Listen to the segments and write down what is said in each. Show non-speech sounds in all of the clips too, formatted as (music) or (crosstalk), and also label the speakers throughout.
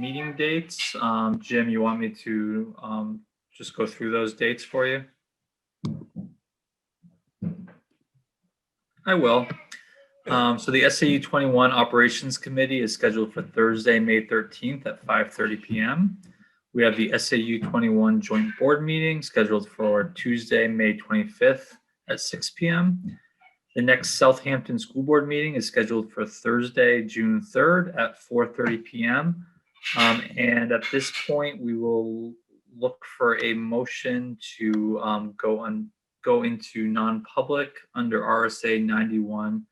Speaker 1: meeting dates. Um, Jim, you want me to, um, just go through those dates for you? I will. Um, so the SAU twenty-one Operations Committee is scheduled for Thursday, May thirteenth at five thirty PM. We have the SAU twenty-one Joint Board Meeting scheduled for Tuesday, May twenty-fifth at six PM. The next Southampton School Board meeting is scheduled for Thursday, June third at four thirty PM. Um, and at this point, we will look for a motion to, um, go on, go into non-public under RSA ninety-one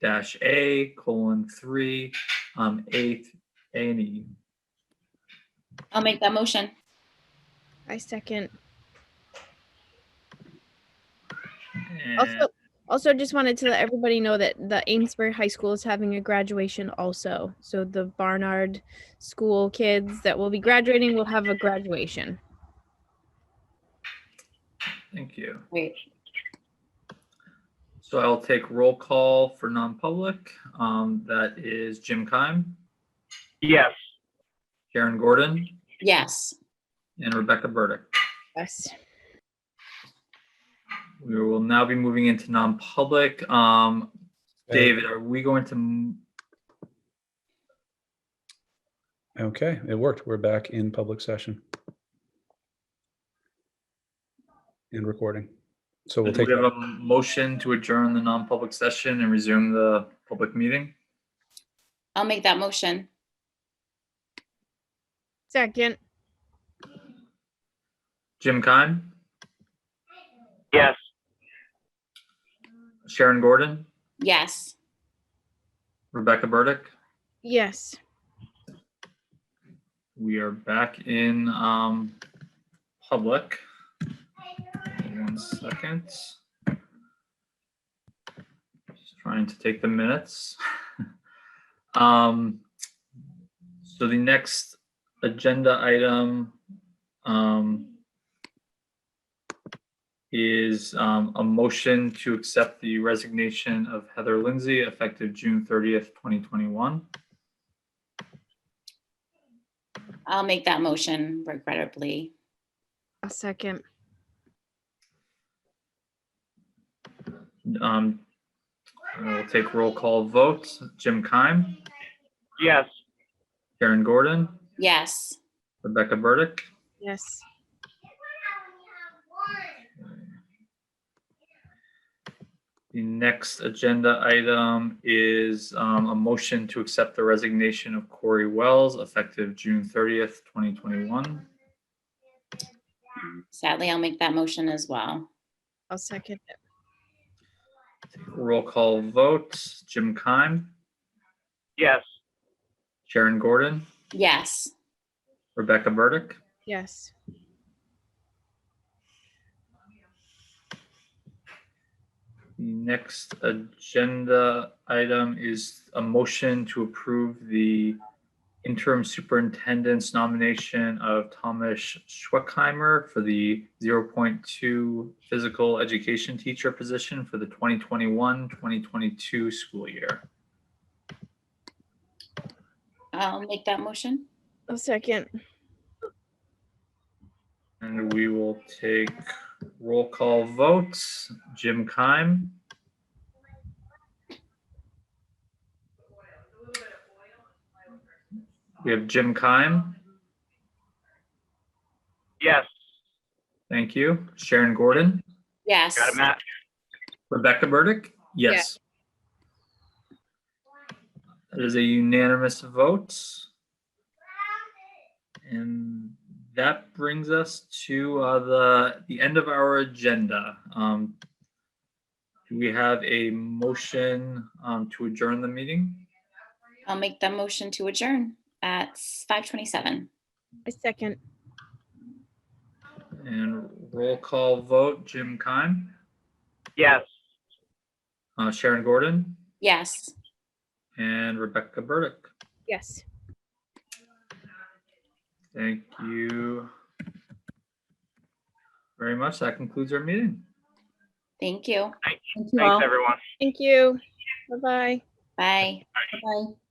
Speaker 1: dash A colon three, um, eighth, A and E.
Speaker 2: I'll make that motion.
Speaker 3: I second.
Speaker 1: And-
Speaker 3: Also, also just wanted to let everybody know that the Amesbury High School is having a graduation also. So the Barnard School kids that will be graduating will have a graduation.
Speaker 1: Thank you.
Speaker 2: Wait,
Speaker 1: So I'll take roll call for non-public. Um, that is Jim Keim,
Speaker 4: Yes.
Speaker 1: Karen Gordon,
Speaker 2: yes.
Speaker 1: and Rebecca Burdick.
Speaker 3: Yes.
Speaker 1: We will now be moving into non-public. Um, David, are we going to, m-
Speaker 5: Okay, it worked. We're back in public session. And recording. So
Speaker 1: do
Speaker 5: we'll take,
Speaker 1: we have a motion to adjourn the non-public session and resume the public meeting?
Speaker 2: I'll make that motion.
Speaker 3: Second.
Speaker 1: Jim Keim,
Speaker 4: Yes.
Speaker 1: Sharon Gordon,
Speaker 2: Yes.
Speaker 1: Rebecca Burdick.
Speaker 3: Yes.
Speaker 1: We are back in, um, public. One second. Just trying to take the minutes. (laughs) Um, so the next agenda item, um, is, um, a motion to accept the resignation of Heather Lindsay effective June thirtieth, twenty twenty-one.
Speaker 2: I'll make that motion regrettably.
Speaker 3: A second.
Speaker 1: Um, I'll take roll call votes. Jim Keim,
Speaker 4: Yes.
Speaker 1: Karen Gordon,
Speaker 2: Yes.
Speaker 1: Rebecca Burdick.
Speaker 3: Yes.
Speaker 1: The next agenda item is um, a motion to accept the resignation of Corey Wells effective June thirtieth, twenty twenty-one.
Speaker 2: Sadly, I'll make that motion as well.
Speaker 3: I'll second. it.
Speaker 1: Roll call votes. Jim Keim,
Speaker 4: Yes.
Speaker 1: Sharon Gordon,
Speaker 2: Yes.
Speaker 1: Rebecca Burdick.
Speaker 3: Yes.
Speaker 1: The next agenda item is a motion to approve the interim superintendent's nomination of Thomas Schweckheimer for the 0.2 physical education teacher position for the 2021, 2022 school year.
Speaker 2: I'll make that motion.
Speaker 3: A second.
Speaker 1: And we will take roll call votes. Jim Keim, we have Jim Keim.
Speaker 4: Yes.
Speaker 1: Thank you. Sharon Gordon,
Speaker 2: Yes.
Speaker 4: Got it, Matt?
Speaker 1: Rebecca Burdick? Yes. That is a unanimous vote. And that brings us to uh, the, the end of our agenda. Um, Do we have a motion um, to adjourn the meeting?
Speaker 2: I'll make that motion to adjourn at 5:27.
Speaker 3: A second.
Speaker 1: And roll call vote, Jim Keim,
Speaker 4: Yes.
Speaker 1: uh, Sharon Gordon,
Speaker 2: Yes.
Speaker 1: and Rebecca Burdick.
Speaker 3: Yes.
Speaker 1: Thank you very much. That concludes our meeting.
Speaker 2: Thank you.
Speaker 4: Thanks, everyone.
Speaker 3: Thank you. Bye bye.
Speaker 2: Bye. Bye.